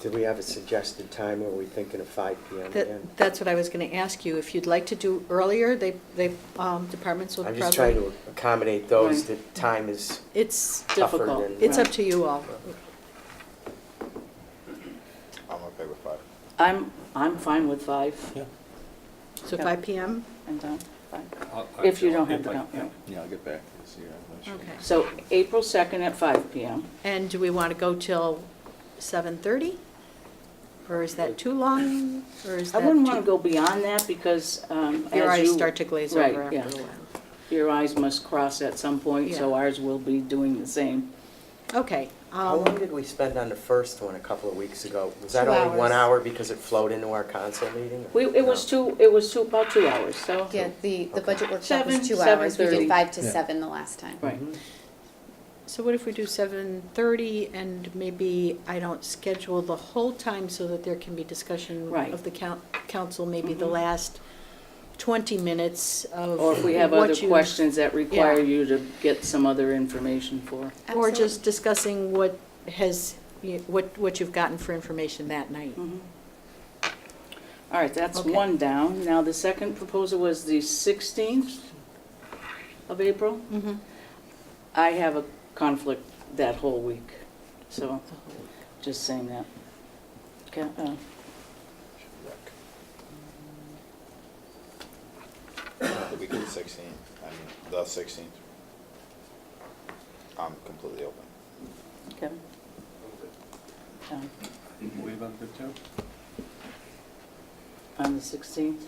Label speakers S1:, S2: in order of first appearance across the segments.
S1: Do we have a suggested time, or are we thinking of five PM again?
S2: That, that's what I was going to ask you, if you'd like to do earlier, they, they, um, departments will
S1: I'm
S2: probably.
S1: just trying to accommodate those
S3: Right.
S1: that time is,
S2: It's
S1: tougher
S2: difficult,
S1: than-
S2: it's up to you all.
S4: I'm okay with five.
S3: I'm, I'm fine with five.
S5: Yeah.
S2: So
S3: Yeah.
S2: five PM?
S3: I'm done, fine.
S5: I'll-
S3: If you
S5: I'll-
S3: don't have
S5: if
S3: the
S5: I-
S3: company.
S4: Yeah, I'll get back to this year. I'm not sure.
S2: Okay.
S3: So April 2nd at five PM.
S2: And do we want to go till seven thirty? Or is that too long, or is
S3: I
S2: that?
S3: wouldn't want to
S2: too-
S3: go beyond that because um, as you...
S2: Your eyes start to glaze
S3: Right,
S2: over after
S3: yeah.
S2: a while.
S3: Your eyes must cross at some point, so
S2: Yeah.
S3: ours will be doing the same.
S2: Okay.
S1: how
S2: um,
S1: long did we spend on the first one a couple of weeks ago? Was that
S2: Two
S1: only one
S2: hours.
S1: hour because it flowed into our council meeting? or-
S3: We, it was
S1: No.
S3: two, it was two, about two hours, so...
S6: Yeah, the, the budget workshop
S3: Seven,
S6: was two hours, we
S3: 7:30.
S6: did five to
S5: Yeah.
S6: seven the last time.
S3: Right.
S1: Mm-hmm.
S2: So what if we do seven thirty and maybe I don't schedule the whole time so that there can be discussion
S3: Right.
S2: of the coun- council, maybe the
S3: Mhm.
S2: last twenty minutes of
S3: Or if we have other
S2: what you-
S3: questions that require
S2: Yeah.
S3: you to get some other information for.
S2: Or
S6: Absolutely.
S2: just discussing what has, you- what, what you've gotten for information that night.
S3: Mm-hmm. All right, that's
S2: Okay.
S3: one down. Now, the second proposal was the 16th of April.
S6: Mm-hmm.
S2: Mhm.
S3: I have a conflict that whole week, so just saying that. Okay, uh,
S4: Uh, The week of the sixteenth, I mean, the sixteenth. I'm completely open.
S3: Kevin? Um,
S5: Were you about to go too?
S3: On the 16th?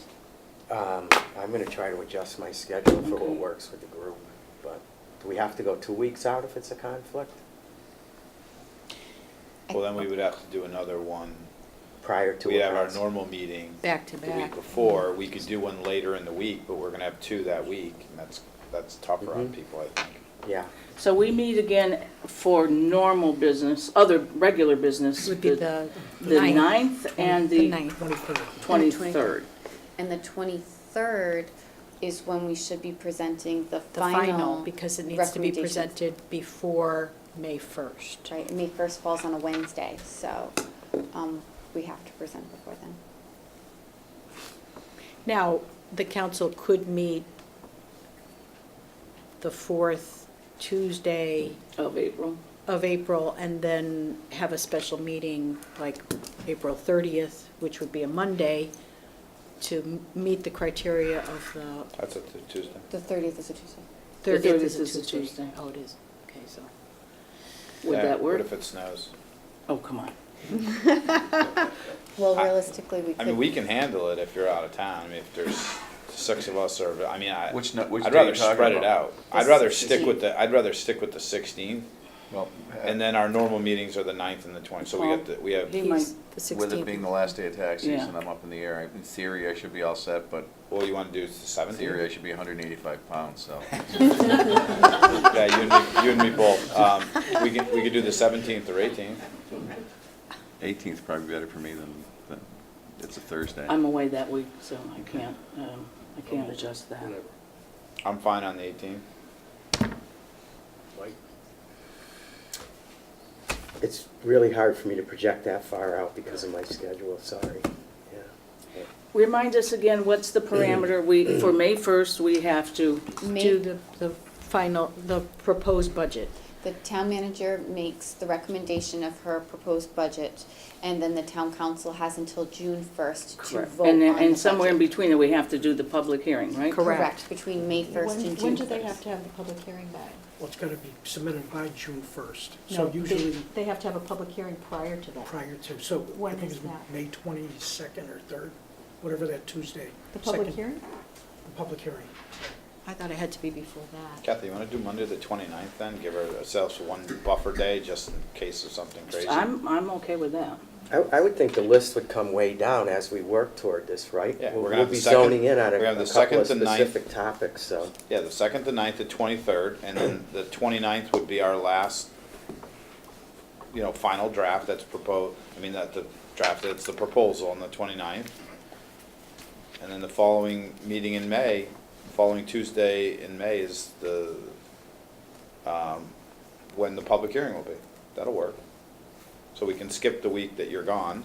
S1: Um, I'm gonna try to adjust my schedule for what
S3: Okay.
S1: works with the group, but do we have to go two weeks out if it's a conflict?
S6: I-
S4: Well, then we would have to do another one.
S1: Prior to a
S4: We have our
S1: council?
S4: normal meeting
S2: Back to
S4: the week
S2: back.
S4: before. We could do one later in the week, but we're gonna have two that week, and that's, that's tougher on
S1: Mhm.
S4: people, I think.
S1: Yeah,
S3: So we meet again for normal business, other regular business.
S2: Would be the
S3: The
S2: ninth.
S3: 9th and
S2: The
S3: the
S2: ninth.
S3: 23rd.
S6: And the twenty-third is when we should be presenting the
S2: The
S6: final.
S2: final, because it needs to be
S6: recommendations.
S2: presented before May first.
S6: Right, and May first falls on a Wednesday, so, um, we have to present before then.
S2: Now, the council could meet the fourth Tuesday
S3: of April.
S2: of April and then have a special meeting like April 30th, which would be a Monday, to m- meet the criteria of the
S4: That's a t- Tuesday.
S6: The thirtieth is a Tuesday.
S2: 30th is
S3: 30th
S2: a Tuesday. Oh, it is. Okay, so.
S3: Would
S4: Yeah,
S3: that work?
S4: What if it snows?
S3: Oh, come on.
S6: Well,
S4: I-
S6: realistically, we could.
S4: I mean, we can handle it if you're out of town. I mean, if there's six of us or, I mean, I.
S7: Which no- which
S4: I'd
S7: day
S4: rather
S7: you talking
S4: spread it
S7: about?
S4: out. I'd rather stick with the, I'd rather stick with the sixteenth.
S7: Well,
S4: And then our normal meetings are the ninth and the twentieth, so we got the, we have,
S3: He might-
S2: He's the 16th.
S7: with it being the last day of tax
S3: Yeah.
S7: season, I'm up in the air. In theory, I should be all set, but
S4: what you wanna do is the
S7: in
S4: seventh
S7: theory, I
S4: here?
S7: should be 185 pounds, so.
S4: Yeah, you and me, you and me both. Um, we can, we could do the seventeenth or eighteenth.
S7: 18th's probably better for me than, than, it's a Thursday.
S3: I'm away that week, so I can't, um, I can't adjust that.
S5: Whatever.
S4: I'm fine on the eighteenth.
S5: Like,
S1: it's really hard for me to project that far out because of my schedule, sorry. Yeah.
S3: Remind us again, what's the parameter? We, for May 1st, we have to,
S2: Do
S6: May,
S2: the, the final, the proposed budget.
S6: the town manager makes the recommendation of her proposed budget, and then the town council has until June first to vote on
S3: and,
S6: the
S3: then- and somewhere in
S6: budget.
S3: between that we have to do the public hearing, right?
S2: Correct.
S6: between May first and June first.
S2: to have the public hearing by?
S8: Well, it's got to be submitted by June 1st, so usually
S2: They have to have a public hearing prior to that.
S8: prior to, so I
S2: When
S8: think
S2: is
S8: it's
S2: that?
S8: May 22nd or 3rd, whatever that Tuesday.
S2: The public
S8: second-
S2: hearing?
S8: The public hearing.
S2: I thought it had to be before that.
S4: Kathy, you wanna do Monday the 29th then? Give ourselves one buffer day just in case of something crazy.
S3: I'm, I'm okay with that.
S1: I, I would think the list would come way down as we work toward this, right?
S4: Yeah,
S1: We'll-
S4: we're gonna have
S1: We'll be
S4: the second-
S1: zoning in on a
S4: we're gonna have
S1: a
S4: the
S1: couple of
S4: second to ninth.
S1: specific topics, so.
S4: Yeah, the second, the ninth, the twenty-third, and then the 29th would be our last, you know, final draft that's proposed, I mean, that the draft, that's the proposal on the 29th. And then the following meeting in May, following Tuesday in May is the, um, when the public hearing will be. That'll work. So we can skip the week that you're gone.